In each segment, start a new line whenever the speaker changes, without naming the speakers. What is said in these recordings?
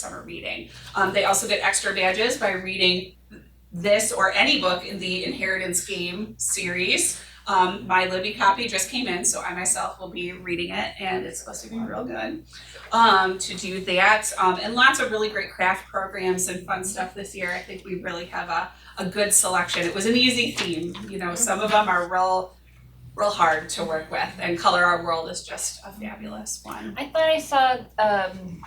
summer reading. Um, they also get extra badges by reading this or any book in the Inheritance Game series. Um, my Libby copy just came in, so I myself will be reading it, and it's supposed to be real good. Um, to do that, um, and lots of really great craft programs and fun stuff this year. I think we really have a, a good selection. It was an easy theme, you know, some of them are real, real hard to work with, and Color Our World is just a fabulous one.
I thought I saw um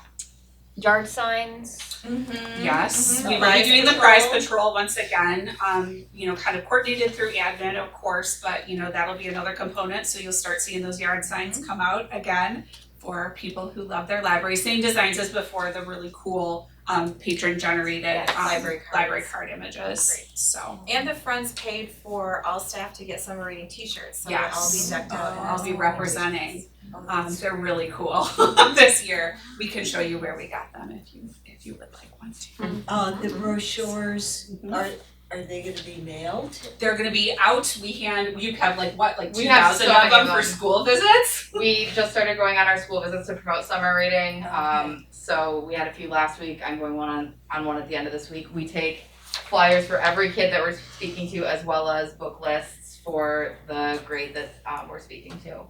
yard signs.
Mm-hmm.
Yes,
Mhm.
we will be
Prize
doing the prize
patrol.
patrol once again, um, you know, kind of coordinated through Advent, of course, but you know, that'll be another component, so you'll start seeing those yard
Mm-hmm.
signs come out again for people who love their library, same designs as before, the really cool um patron generated
Yes,
um
library
library
cards.
card images,
Great.
so.
And the friends paid for all staff to get summer reading T-shirts, so
Yes.
I'll be decked out.
I'll be
in-
representing, um, they're really cool this year, we can show you where we got them if you, if you would like one to.
Uh, the brochures, are, are they gonna be mailed?
they're gonna be out. We hand you have like what like
We
two
have so
thousand of
many
them
of
for
them.
school visits.
We just started going on our school visits to promote summer reading, um, so we had a few last week, I'm going one on, on one at the end of this week. We take flyers for every kid that we're speaking to, as well as book lists for the grade that, um, we're speaking to.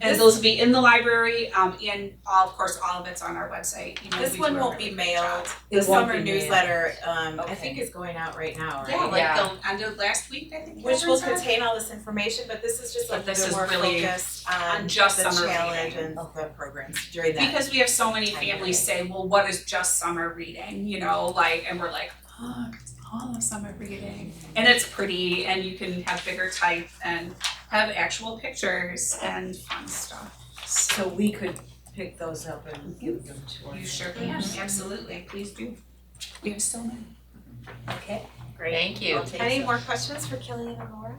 And those will be in the library, um, and all, of course, all of it's on our website. You know, we
This
do
one
a
won't
really
be
great job.
mailed, the
It won't
summer
be mailed.
newsletter, um, I
Okay.
think is going out right now, right?
Yeah,
Yeah.
like the end of last week, I think.
Which
it
will
was on.
contain all this information, but this is just a
But this
little bit more
is really
focused
on
on the
just summer
challenge
reading.
and the programs during that.
Because we have so many
I know.
families say, well, what is just summer reading, you know, like, and we're like, oh, it's all of summer reading. And it's pretty and you can have bigger type and have actual pictures and fun stuff.
So we could pick those up and give them to
You
us,
sure can, absolutely, please do. We have so many.
okay?
Thank you.
I'll take
Any
some.
more questions for Killian and Laura?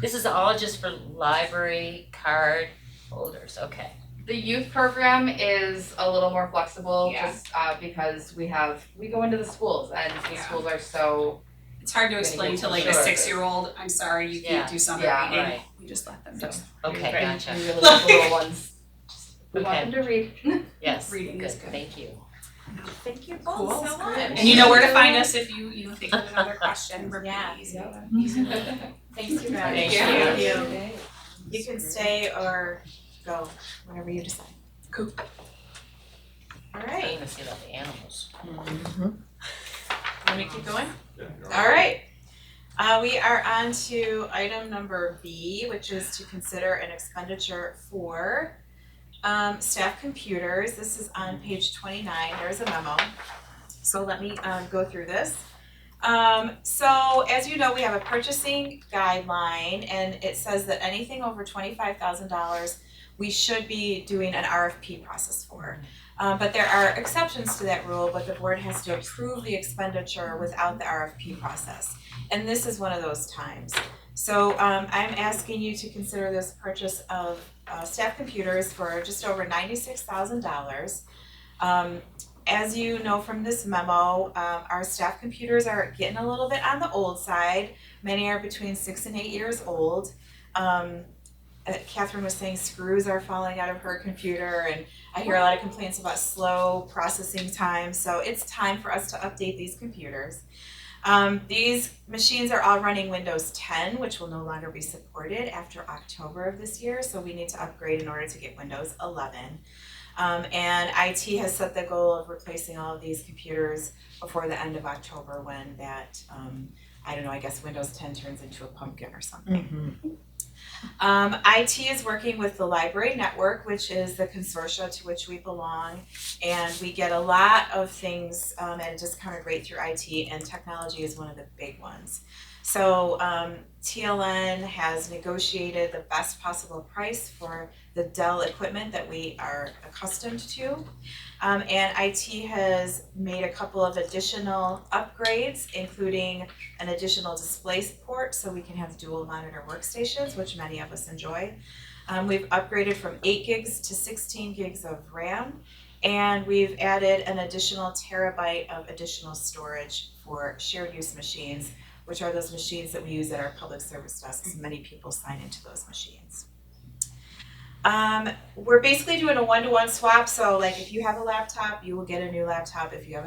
This is all just for library card holders, okay.
The youth program is a little more flexible,
Yeah.
just, uh, because we have, we go into the schools and the
Yeah.
schools are so,
It's hard to
Gonna
explain
get
to like a
sure.
six-year-old, I'm sorry, you can't
Yeah.
do summer
Yeah,
reading,
right.
we just let them do
Okay,
Right.
gotcha.
we really want the little ones. We want
Okay,
them to read.
yes,
Reading
good,
is good.
thank you.
Thank you
Cool.
both so much.
And you know where to find us if you, you know, think of another question, we're pretty
Yeah.
easy.
Thank you guys.
Thank
Thank
you. You can stay or go, whenever you decide.
Cool.
All
I
right,
didn't even see about the animals.
let me keep going. All right. Uh, we are on to item number B, which is to consider an expenditure for um, staff computers. This is on page twenty-nine. There's a memo. So let me um, go through this. Um, so as you know, we have a purchasing guideline and it says that anything over twenty-five thousand dollars, we should be doing an RFP process for. Uh, but there are exceptions to that rule, but the board has to approve the expenditure without the RFP process. And this is one of those times. So um, I'm asking you to consider this purchase of uh, staff computers for just over ninety-six thousand dollars. Um, as you know from this memo, um, our staff computers are getting a little bit on the old side. Many are between six and eight years old. Um, uh, Catherine was saying screws are falling out of her computer and I hear a lot of complaints about slow processing time, so it's time for us to update these computers. Um, these machines are all running Windows 10, which will no longer be supported after October of this year, so we need to upgrade in order to get Windows 11. Um, and IT has set the goal of replacing all of these computers before the end of October when that, um, I don't know, I guess Windows 10 turns into a pumpkin or something. Um, IT is working with the library network, which is the consortia to which we belong. And we get a lot of things um, at a discounted rate through IT, and technology is one of the big ones. So um, TLN has negotiated the best possible price for the Dell equipment that we are accustomed to. Um, and IT has made a couple of additional upgrades, including an additional display support so we can have dual monitor workstations, which many of us enjoy. Um, we've upgraded from eight gigs to sixteen gigs of RAM, and we've added an additional terabyte of additional storage for shared use machines, which are those machines that we use at our public service desks. Many people sign into those machines. Um, we're basically doing a one-to-one swap, so like if you have a laptop, you will get a new laptop. If you have